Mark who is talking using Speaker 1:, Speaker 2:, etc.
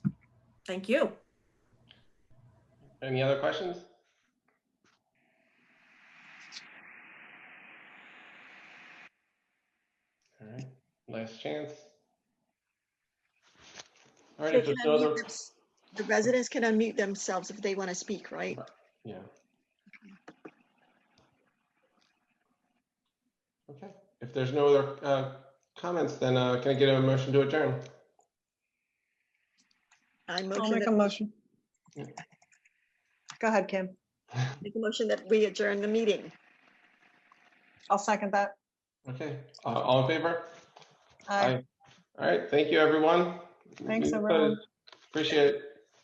Speaker 1: Thank you.
Speaker 2: Any other questions? All right, last chance. All right,
Speaker 3: They
Speaker 2: if there's
Speaker 3: can
Speaker 2: no
Speaker 3: unmute
Speaker 2: other,
Speaker 3: thems- The residents can unmute themselves if they want to speak, right?
Speaker 2: yeah. Okay, if there's no other uh, comments, then uh, can I get a motion to adjourn?
Speaker 3: I
Speaker 4: I'll
Speaker 3: motion
Speaker 4: make a
Speaker 3: that,
Speaker 4: motion.
Speaker 2: Yeah.
Speaker 4: Go ahead, Kim.
Speaker 3: make a motion that we adjourn the meeting.
Speaker 4: I'll second that.
Speaker 2: Okay, uh, all in favor?
Speaker 4: Aye.
Speaker 2: All right, thank you, everyone.
Speaker 4: Thanks,
Speaker 2: Meeting
Speaker 4: everyone.
Speaker 2: closed. Appreciate it.